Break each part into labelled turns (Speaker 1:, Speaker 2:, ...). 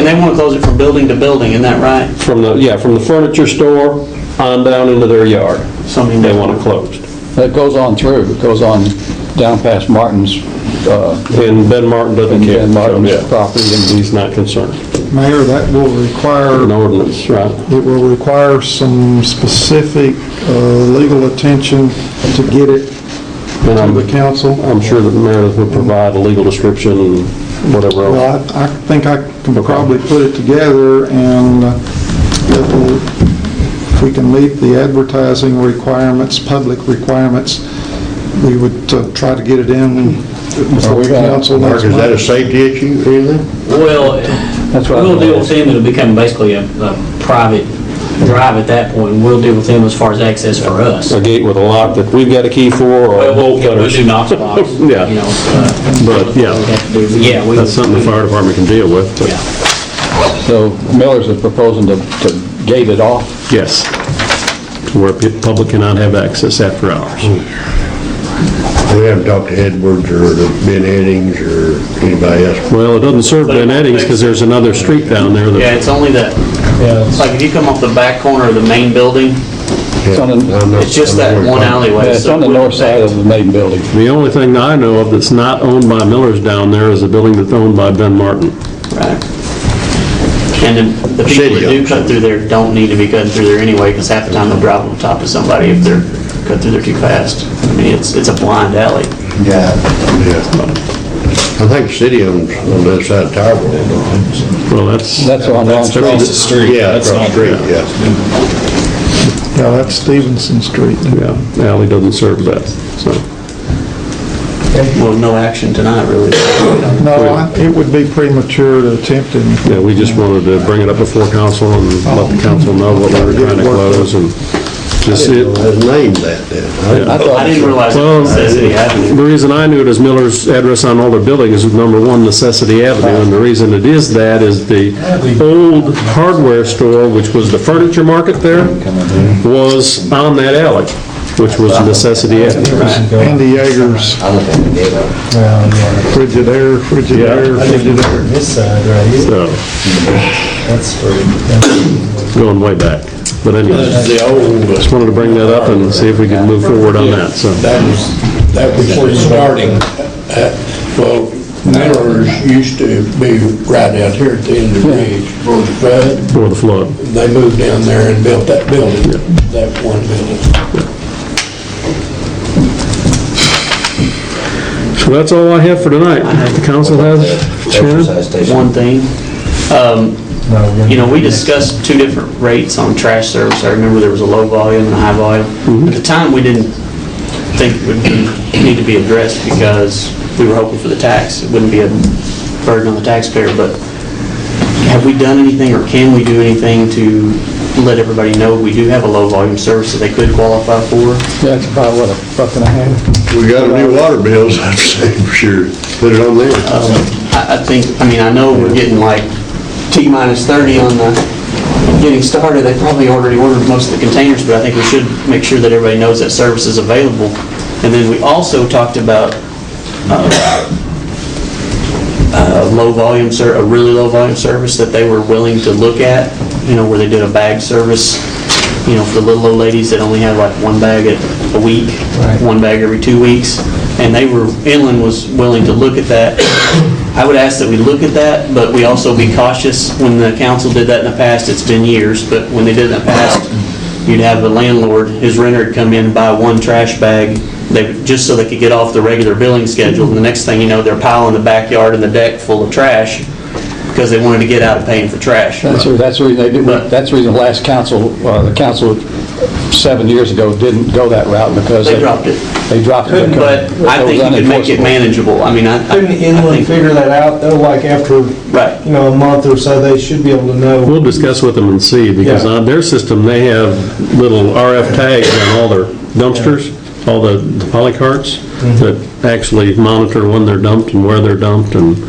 Speaker 1: they want to close it from building to building, isn't that right?
Speaker 2: From the, yeah, from the furniture store on down into their yard,
Speaker 1: Something
Speaker 2: they
Speaker 1: that-
Speaker 2: want it closed.
Speaker 3: It goes on through, it goes on down past Martin's, uh,
Speaker 2: And Ben Martin doesn't
Speaker 3: and
Speaker 2: care.
Speaker 3: and
Speaker 2: so,
Speaker 3: Martin's
Speaker 2: yeah.
Speaker 3: property. and-
Speaker 2: He's not concerned.
Speaker 4: Mayor, that will require,
Speaker 2: An ordinance, right?
Speaker 4: it will require some specific uh, legal attention to get it
Speaker 2: And
Speaker 4: to
Speaker 2: I'm-
Speaker 4: the council.
Speaker 2: I'm sure that Meredith will provide a legal description, and whatever else.
Speaker 4: Well, I I think I can probably put it together and uh, it will- if we can meet the advertising requirements, public requirements, we would uh, try to get it in before the council
Speaker 5: Mark,
Speaker 4: next
Speaker 5: is that a
Speaker 4: month.
Speaker 5: safety issue or anything?
Speaker 6: Well,
Speaker 3: That's what I
Speaker 6: we'll
Speaker 3: was
Speaker 6: deal
Speaker 3: gonna
Speaker 6: with them, it'll become basically a, a private drive at that point, we'll deal with them as far as access for us.
Speaker 2: A gate with a lock that we've got a key for, or a bolt
Speaker 6: Yeah,
Speaker 2: cutter.
Speaker 6: We do knock box, you know,
Speaker 2: Yeah,
Speaker 6: uh,
Speaker 2: but,
Speaker 6: we
Speaker 2: yeah,
Speaker 6: have to do- yeah, we.
Speaker 5: That's something the fire department can deal with.
Speaker 6: Yeah.
Speaker 3: So Miller's is proposing to to gate it off.
Speaker 5: Yes.
Speaker 2: where the public cannot have access after hours.
Speaker 5: We haven't talked to Edwards or the Ben Eddings or anybody else.
Speaker 2: Well, it doesn't serve Ben Eddings, because there's another street down there
Speaker 1: Yeah,
Speaker 2: that,
Speaker 1: it's only that, it's like if you come off the back corner of the main building,
Speaker 5: It's
Speaker 3: on the-
Speaker 1: it's just that one alleyway.
Speaker 3: Yeah, It's
Speaker 1: so
Speaker 3: on the
Speaker 1: we're-
Speaker 3: north side of the main building.
Speaker 2: the only thing that I know of that's not owned by Miller's down there is a building that's owned by Ben Martin.
Speaker 1: Right. And then the people that do cut through there don't need to be cutting through there anyway, because half the time they'll drive on top of somebody if they're cut through there too fast. I mean, it's, it's a blind alley.
Speaker 5: Yeah. I think the city owns on the other side of Tower World, don't they?
Speaker 2: Well, that's,
Speaker 3: That's on Long
Speaker 7: Across
Speaker 3: Street.
Speaker 7: the street.
Speaker 5: Yeah,
Speaker 7: That's
Speaker 5: across the
Speaker 7: not
Speaker 5: street, yeah.
Speaker 4: Yeah, that's Stevenson Street.
Speaker 2: yeah, the alley doesn't serve that, so.
Speaker 1: Well, no action tonight, really.
Speaker 4: No, I- it would be premature to attempt it.
Speaker 2: Yeah, we just wanted to bring it up before council and let the council know what we were trying to close and just see it.
Speaker 5: Let's name that then.
Speaker 3: I
Speaker 1: I
Speaker 3: thought
Speaker 1: didn't realize it
Speaker 2: Well,
Speaker 1: was Necessity Avenue.
Speaker 2: the reason I knew it is Miller's address on all their buildings is number one Necessity Avenue, and the reason it is that is the old hardware store, which was the furniture market there, was on that alley, which was Necessity Avenue.
Speaker 4: Andy Yeager's Frigidaire, Frigidaire, Frigidaire.
Speaker 7: This side right here,
Speaker 2: So,
Speaker 7: that's for,
Speaker 2: uh, going way back. But anyway,
Speaker 5: The old, uh,
Speaker 2: just wanted to bring that up and see if we could move forward on that, so.
Speaker 8: That was, that was where starting. Uh, Well, Miller's used to be right out here at the end of the ridge, before the flood.
Speaker 2: For the flood.
Speaker 8: They moved down there and built that building, that one building.
Speaker 2: So that's all I have for tonight. The council has, Shannon?
Speaker 1: one thing. Um, You know, we discussed two different rates on trash service. I remember there was a low volume and a high volume. At the time, we didn't think it would be- need to be addressed because we were hoping for the tax. It wouldn't be a burden on the taxpayer, but have we done anything or can we do anything to let everybody know we do have a low volume service that they could qualify for?
Speaker 3: Yeah, it's about, what, a buck and a half?
Speaker 5: we got a new water bills, I'd say, for sure. Put it on there.
Speaker 1: Um, I I think, I mean, I know we're getting like T minus 30 on the, getting started, they probably already ordered most of the containers, but I think we should make sure that everybody knows that service is available. And then we also talked about uh, a low-volume, ser- a really low-volume service that they were willing to look at, you know, where they did a bag service, you know, for the little old ladies that only had like one bag a- a week, one bag every two weeks, and they were, Inland was willing to look at that. I would ask that we look at that, but we also be cautious. When the council did that in the past, it's been years, but when they did it in the past, you'd have the landlord, his renter would come in and buy one trash bag, they, just so they could get off the regular billing schedule, and the next thing you know, they're piling the backyard and the deck full of trash, because they wanted to get out of paying for trash.
Speaker 3: That's, the- that's the reason they did, that's the reason last council, uh, the council seven years ago didn't go that route because.
Speaker 1: They dropped it.
Speaker 3: They dropped it.
Speaker 1: But
Speaker 3: because
Speaker 1: I think you could make it
Speaker 3: was unenforceable.
Speaker 1: manageable, I mean, I, I I
Speaker 7: couldn't Inland
Speaker 1: think,
Speaker 7: figure that out, though, like after, you
Speaker 1: right.
Speaker 7: know, a month or so, they should be able to know.
Speaker 2: We'll discuss with them and see, because
Speaker 7: Yeah.
Speaker 2: on their system, they have little RF tags on all their dumpsters, all the the poly carts,
Speaker 5: Mm-hmm.
Speaker 2: that actually monitor when they're dumped and where they're dumped, and,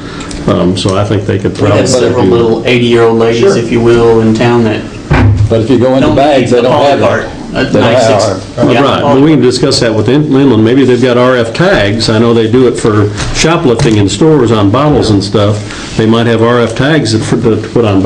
Speaker 2: um, so I think they could
Speaker 1: We
Speaker 2: probably.
Speaker 1: have several
Speaker 2: do-
Speaker 1: little 80-year-old ladies, if you will, in town that
Speaker 3: But if you go into
Speaker 1: don't need
Speaker 3: bags, they
Speaker 1: the
Speaker 3: don't
Speaker 1: poly
Speaker 3: have it.
Speaker 1: cart. uh,
Speaker 3: They don't have
Speaker 1: 96.
Speaker 2: Right,
Speaker 1: Yeah.
Speaker 2: well, we can discuss that with In- Inland, maybe they've got RF tags, I know they do it for shoplifting in stores on bottles and stuff, they might have RF tags that for, to put on